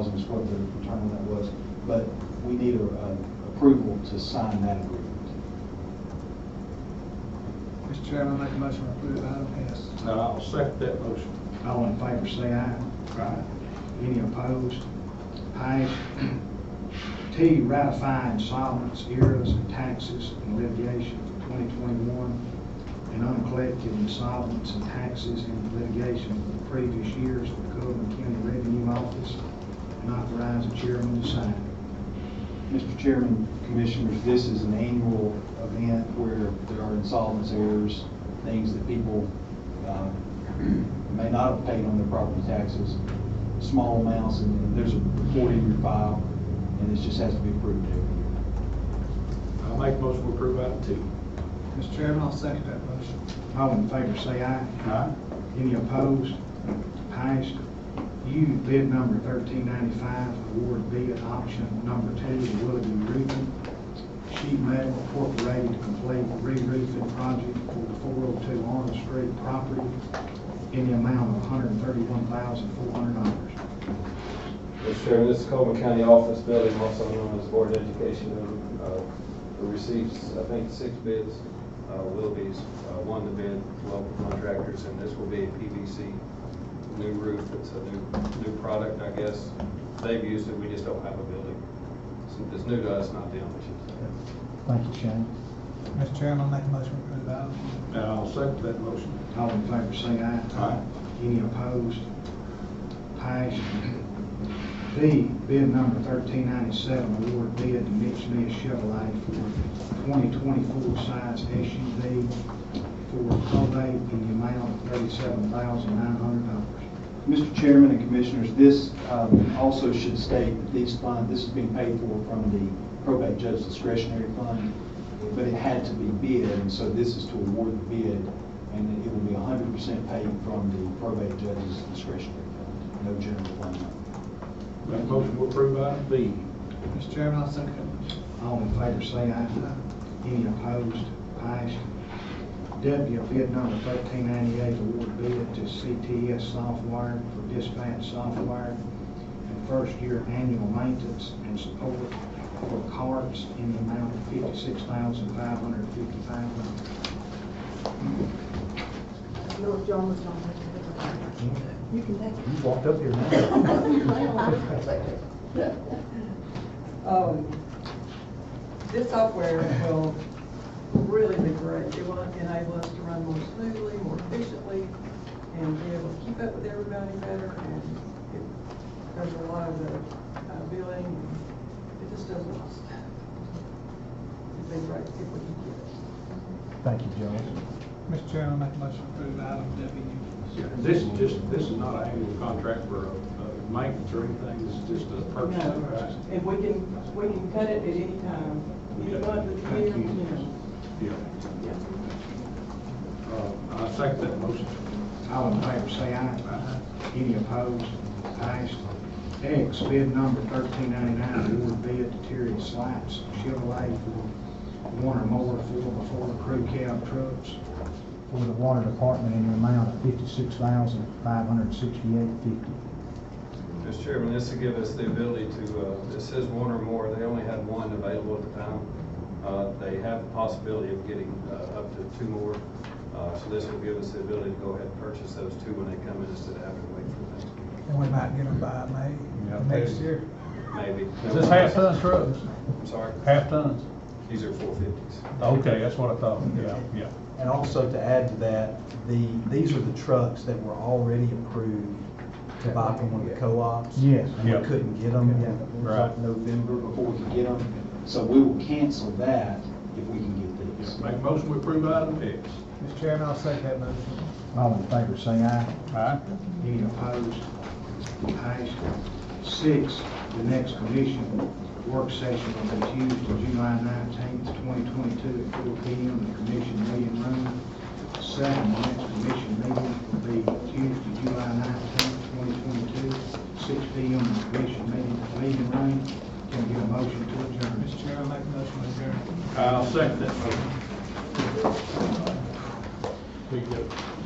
is what the term on that was, but we need a, a approval to sign that agreement. Mr. Chairman, I make a motion to approve item S. And I'll second that motion. All in favor, say aye. Aye. Any opposed? Ayes. T, ratify insolvents, eras, and taxes and litigation for 2021 and uncollected insolvents and taxes and litigation for the previous years for the Coleman County Revenue Office and authorize the chairman to sign. Mr. Chairman, Commissioners, this is an annual event where there are insolvency errors, things that people um, may not have paid on their property taxes, small amounts, and there's a report in your file, and this just has to be approved every year. I'll make a motion to approve item two. Mr. Chairman, I'll second that motion. All in favor, say aye. Aye. Any opposed? Passed. U, bid number thirteen ninety-five, award bid at option number two, to Willoughby Roofing, Sheet Metal Incorporated, to complete re-roofing project for the four oh two Arnold Street property in the amount of hundred and thirty-one thousand, four hundred dollars. Mr. Chairman, this is Coleman County Office Building, also known as Board of Education, who, uh, who receives, I think, six bids. Uh, Willoughby's uh, won the bid, local contractors, and this will be a PVC new roof. It's a new, new product, I guess. They've used it, we just don't have a building. So It's new to us, not them, I should say. Thank you, Shane. Mr. Chairman, I make a motion to approve item E. And I'll second that motion. All in favor, say aye. Aye. Any opposed? Passed. D, bid number thirteen ninety-seven, award bid to Mitch Smith Chevrolet for twenty twenty-four size SUV for probate in the amount of thirty-seven thousand nine hundred dollars. Mr. Chairman and Commissioners, this um, also should state that these funds, this is being paid for from the probate judge discretionary fund, but it had to be bid, and so this is to award the bid, and it will be 100% paid from the probate judge's discretionary fund, no general fund. Make a motion to approve item B. Mr. Chairman, I'll second that motion. All in favor, say aye. Any opposed? Passed. W, bid number thirteen ninety-eight, award bid to CTS Software for dispatch software and first-year annual maintenance and support for carts in the amount of fifty-six thousand five hundred fifty-five dollars. No, John was not here. You can take it. You walked up here Um, This software will really be great. It will enable us to run more smoothly, more efficiently, and be able to keep up with everybody better. And it does a lot of the uh, billing, and it just does a lot. It'd be great if we could get it. Thank you, Joe. Mr. Chairman, I make a motion to approve item This is just, this is not an annual contract for uh, uh, maintenance or anything, this is just a purchase. No, and we can, we can cut it at any time, any month of the year, you know. Yeah. Uh, I second that motion. All in favor, say aye. Any opposed? Passed. X, bid number thirteen ninety-nine, award bid to Terry Slaps Chevrolet for one or more four before crew cab trucks. for the water department in the amount of fifty-six thousand, five hundred and sixty-eight fifty. Mr. Chairman, this will give us the ability to, uh, this says one or more, they only had one available at the time. Uh, They have the possibility of getting uh, up to two more, Uh, so this will give us the ability to go ahead and purchase those two when they come in instead of having to wait for the next W. meeting, And we might get them by Yeah, May, next they- year. maybe. Is this half-ton trucks? I'm sorry, Half-tons? these are four fifties. Okay, that's what I thought, yeah, yeah. And also to add to that, the, these are the trucks that were already approved to buy from one of the co-ops. Yes. And Yeah. we couldn't get them in Right. November. Before we can get them, so we will cancel that if we can get these. Yeah, Make a motion to approve item X. Mr. Chairman, I'll second that motion. All in favor, say aye. Aye. Any opposed? Ayes. Six, the next commission work session will be Tuesday, July nineteenth, twenty twenty-two, at four P M, in the commission meeting room. Seven, the next commission meeting will be Tuesday, July nineteenth, twenty twenty-two, six P M, in the commission meeting, meeting room. Can I get a motion to adjourn? Mr. Chairman, I make a motion to adjourn. I'll second that motion. We got